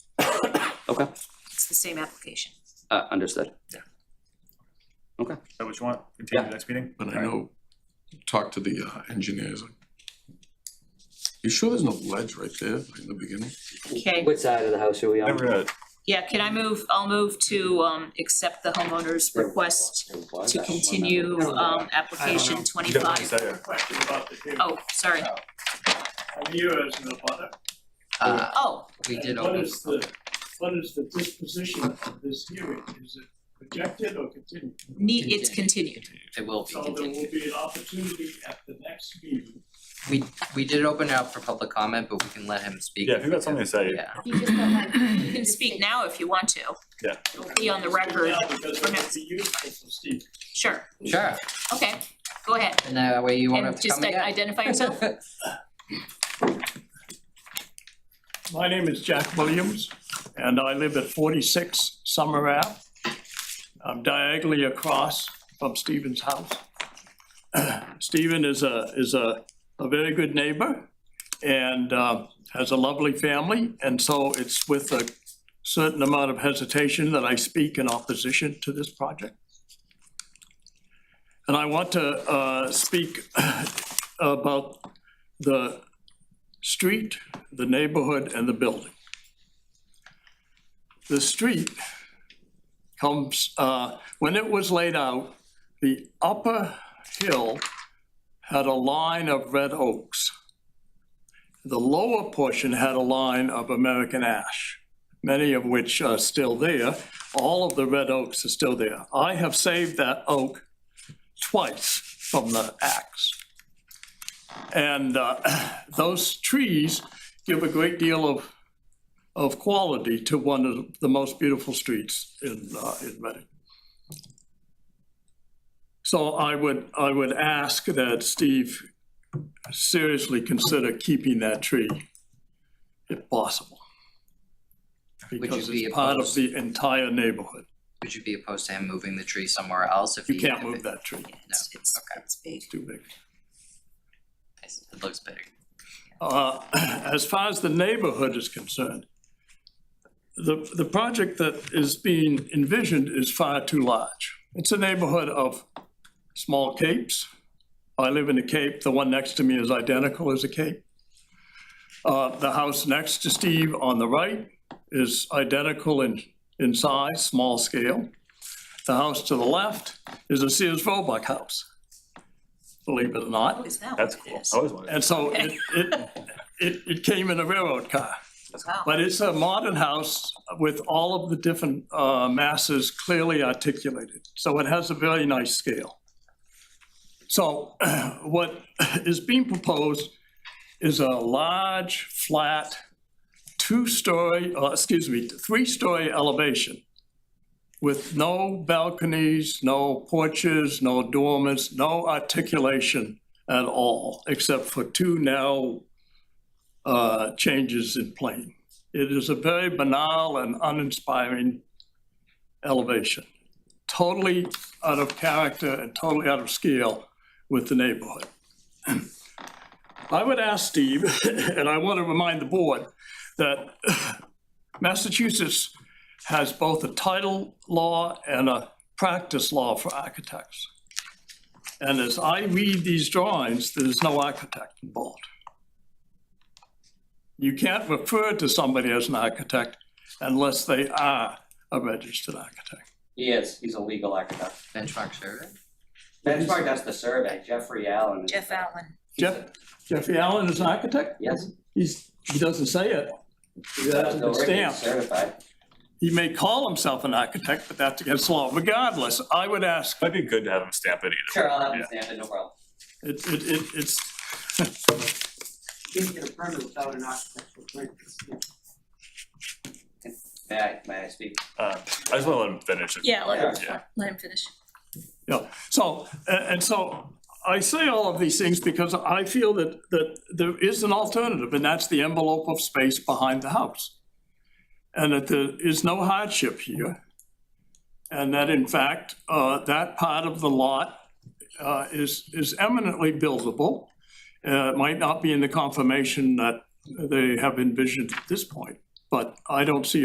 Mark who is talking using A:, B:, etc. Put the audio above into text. A: Okay,
B: It's the same application.
A: uh, understood.
C: Is that what you want? Continue
A: Yeah.
C: to the next meeting?
D: But I
C: Alright.
D: know, talk to the uh, engineers. You sure there's no ledge right there like in the beginning?
B: Okay,
A: Which side of the house are we on?
C: Never uh,
B: yeah, can I move, I'll move to, um, accept the homeowner's request to continue, um, application
C: you got one
B: twenty-five.
C: second.
E: question about the date.
B: Oh, sorry.
E: I'm here as an abutter.
F: Uh,
B: Oh,
F: we
E: And
F: did
E: What
F: open,
E: is the, what is the disposition of this hearing? Is it projected or continued?
B: neat, it's continued.
F: it will be
E: So there will
F: continued.
E: be an opportunity at the next meeting.
F: We, we did open it up for public comment, but we can let him speak.
C: Yeah, if you got something to say,
F: Yeah,
G: You just don't like.
B: You can speak now if you want to.
C: Yeah.
B: It'll be on the record,
E: Now, because it would be useful for Steve.
B: sure,
F: sure,
B: okay, go ahead.
F: and that way you won't have
B: And
F: to
B: just
F: come
B: i-
F: again.
B: identify yourself.
E: My name is Jack Williams, and I live at 46 Summer Ave. I'm diagonally across from Stephen's house. Stephen is a, is a, a very good neighbor and uh, has a lovely family, and so it's with a certain amount of hesitation that I speak in opposition to this project. And I want to uh, speak about the street, the neighborhood, and the building. The street comes, uh, when it was laid out, the upper hill had a line of red oaks. The lower portion had a line of American ash, many of which are still there. All of the red oaks are still there. I have saved that oak twice from the axe. And uh, those trees give a great deal of, of quality to one of the most beautiful streets in, uh, in Reading. So I would, I would ask that Steve seriously consider keeping that tree if possible.
F: you
E: Because
F: be
E: it's part of
F: opposed?
E: the entire neighborhood.
F: Would you be opposed to him moving the tree somewhere else if he?
E: You can't
F: if
E: move
F: it-
E: that tree,
B: It's, it's,
F: okay.
B: it's big.
E: it's too big.
F: It looks big.
E: Uh, As far as the neighborhood is concerned, the, the project that is being envisioned is far too large. It's a neighborhood of small capes. I live in a cape, the one next to me is identical as a cape. Uh, The house next to Steve on the right is identical in, in size, small scale. The house to the left is a Sears Roebuck house, believe it or not.
B: What Oh, is that?
C: that's
B: What it
C: cool. Oh,
B: is?
C: I always wanted.
E: And so it, it, it, it came in a railroad car.
B: Wow.
E: But it's a modern house with all of the different uh, masses clearly articulated. So it has a very nice scale. So what is being proposed is a large, flat, two-story, uh, excuse me, three-story elevation with no balconies, no porches, no dormers, no articulation at all, except for two narrow uh, changes in plane. It is a very banal and uninspiring elevation, totally out of character and totally out of scale with the neighborhood. I would ask Steve, and I want to remind the board, that Massachusetts has both a title law and a practice law for architects. And as I read these drawings, there's no architect involved. You can't refer to somebody as an architect unless they are a registered architect.
A: He is, he's a legal architect.
F: Benchmark survey?
A: Benchmark does the survey, Jeffrey Allen. is-
B: Jeff Allen,
A: he's a-
E: Jeff- Jeffrey Allen is an architect?
A: Yes.
E: He's, he doesn't say it. That's
A: Bill
E: the
A: Rickman is
E: stamp.
A: Certified.
E: He may call himself an architect, but that's against the law. Regardless, I would ask,
C: Might be good to have him stamp it either.
A: Sure, I'll have him stamp it, no problem.
E: it, it, it, it's,
H: didn't get a permit without an architectural permit.
A: May I, may I speak?
C: Uh, I just wanna let him finish it.
B: yeah, let him,
C: Yeah.
B: let him finish.
E: Yeah, so, and, and so I say all of these things because I feel that, that there is an alternative, and that's the envelope of space behind the house. And that there is no hardship here. And that in fact, uh, that part of the lot, uh, is, is eminently buildable. Uh, it might not be in the confirmation that they have envisioned at this point, but I don't see